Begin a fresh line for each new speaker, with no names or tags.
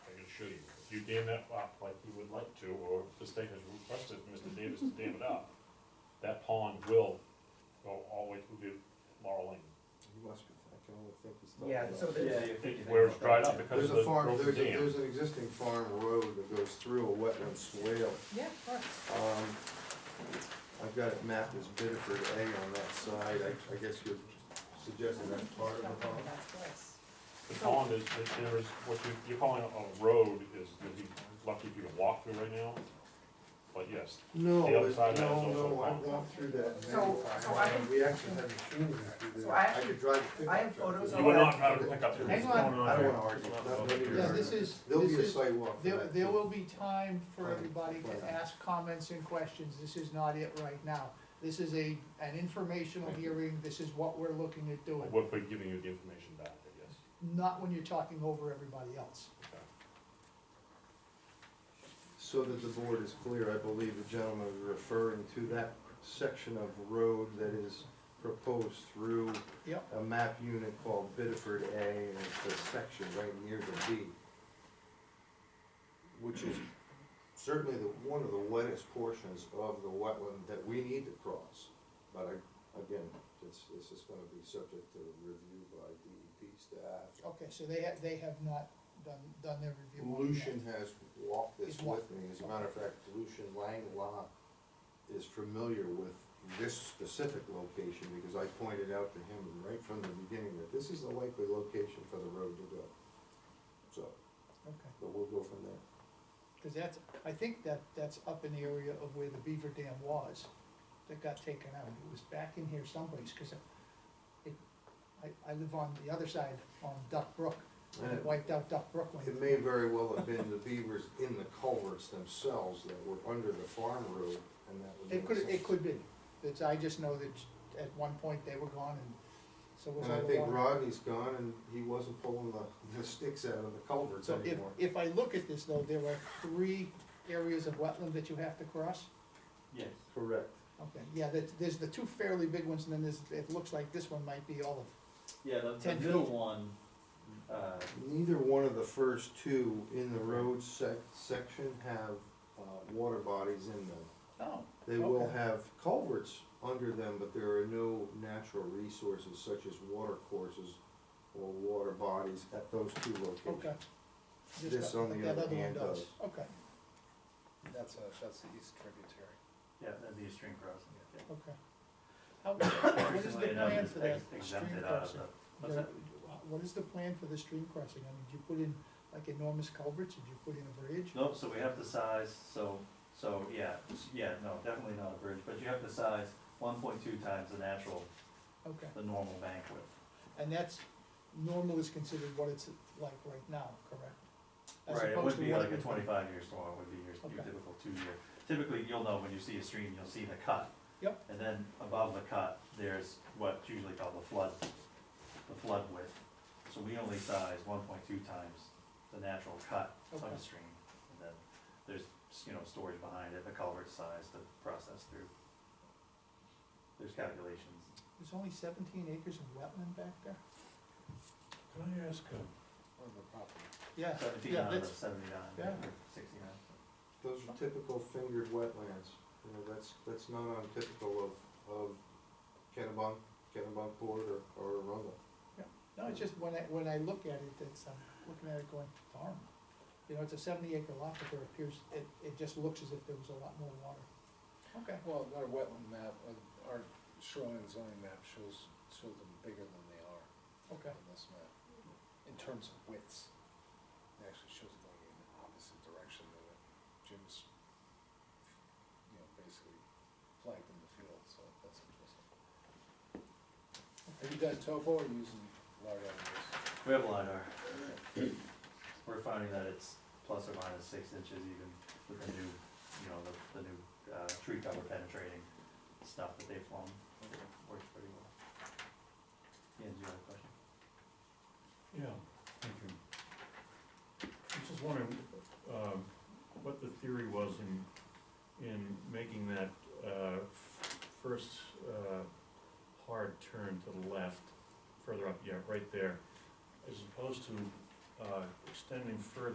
you dam that up like you would like to, or the state has requested from Mr. Davis to dam it up, that pond will go all the way through the Laurel Lane.
You must be, I can only think it's.
Yeah, so there's,
Where it's dried up because
There's
of the
a farm,
broken
there's, a-
dam.
there's an existing farm road that goes through a wetland swale.
yeah, of course.
Um, I've got it mapped as Biddeford A on that side, I, I guess you're suggesting that's part of the pond?
That's worse.
The pond is, that there is, what you, you're calling a road is, you'd be lucky if you could walk through right now. But yes,
No,
The other
there's-
side of that is
no,
also a
no, I
pond.
walked through that many
So- so I
times,
can-
we actually had machinery through
So
there,
I
I could drive a
I have
pickup truck. through
photos of
you
there.
would
that.
not drive a pickup through this
Hang on.
going on.
I don't
here.
wanna argue, Not- not here.
No, this is,
There'll
this
be a
is,
sidewalk. for
there,
that,
there
too.
will be time for
Right,
everybody
right.
to ask comments and questions, this is not it right now. This is a, an informational hearing, this is what we're looking at doing,
We're we're giving you the information back, I guess.
not when you're talking over everybody else.
Okay.
So that the board is clear, I believe the gentleman is referring to that section of road that is proposed through
Yep,
a map unit called Biddeford A, and it's the section right near the B. Which is certainly the, one of the wettest portions of the wetland that we need to cross. But I, again, this, this is gonna be subject to review by DEP staff.
okay, so they have, they have not done, done their review on it yet.
Lucian has walked this
He's
with
walked.
me, as a matter of fact, Lucian Langlois is familiar with this specific location, because I pointed out to him right from the beginning that this is the likely location for the road to go. So,
Okay,
but we'll go from there.
cause that's, I think that, that's up in the area of where the beaver dam was, that got taken out, it was back in here someplace, cause it, it, I, I live on the other side, on Duck Brook, and it
And
wiped out Duck Brook when
It may very well have been the beavers in the culverts themselves that were under the farm road, and that would
It
make
could,
sense.
it could be, it's, I just know that at one point they were gone and so was
And I
all the
think
water.
Rodney's gone, and he wasn't pulling the, the sticks out of the culverts
So if,
anymore.
if I look at this though, there are three areas of wetland that you have to cross?
Yes.
Correct.
Okay, yeah, there's, there's the two fairly big ones and then there's, it looks like this one might be all
Yeah, the, the
Ten
middle
feet.
one, uh,
Neither one of the first two in the road sec- section have, uh, water bodies in them.
of, oh,
They will
Okay.
have culverts under them, but there are no natural resources such as water courses or water bodies at those two
okay.
locations.
Just
This
that-
on the
that
other
one
hand uh, does.
Okay,
That's a, that's the east tributary.
yeah, that'd be a stream crossing. yeah.
okay. How, what is the
Recently enough,
plan
it's
for that
ex-
stream
exempted out of
crossing?
the-
There-
what's that?
What is the plan for the stream crossing? I mean, did you put in like enormous culverts? Did you put in a bridge?
Nope, so we have the size, so, so, yeah, s- yeah, no, definitely not a bridge, but you have the size one point two times the natural,
Okay.
the normal bank width.
And that's, normal is considered what it's like right now, correct? As
Right, it
opposed
would
to
be
what
like a
would be.
twenty-five year storm, would be your, your
Okay.
typical two-year. Typically, you'll know when you see a stream, you'll see the cut.
Yep.
And then above the cut, there's what's usually called the flood, the flood width. So we only size one point two times the natural cut of
Okay.
a stream. And then there's, you know, storage behind it, the culvert size to process through. There's calculations.
There's only seventeen acres of wetland back there?
Can I ask, um,
Or the property.
Yeah,
Seventeen
yeah,
out of
that's,
seventy-nine,
yeah.
or sixty-nine.
Those are typical fingered wetlands, you know, that's, that's not untypical of, of Kennebunk, Kennebunk Port or, or Arundel.
no, it's just when I, when I look at it, it's, I'm looking at it going, darn. You know, it's a seventy acre lot, but there appears, it, it just looks as if there was a lot more water. Okay,
Well, our wetland map, uh, our shoreline zoning map shows, shows them bigger than they are
okay,
on this map. In terms of widths, it actually shows it going in the opposite direction than what Jim's, you know, basically flagged in the field, so that's interesting. Have you done topo or using large areas?
We have LiDAR. We're finding that it's plus or minus six inches even with the new, you know, the, the new, uh, tree cover penetrating stuff that they've flown. It Works pretty well. Ian, do you have a question?
Yeah, thank you. I was just wondering, um, what the theory was in, in making that, uh, f- first, uh, hard turn to the left, further up, yeah, right there, as opposed to, uh, extending further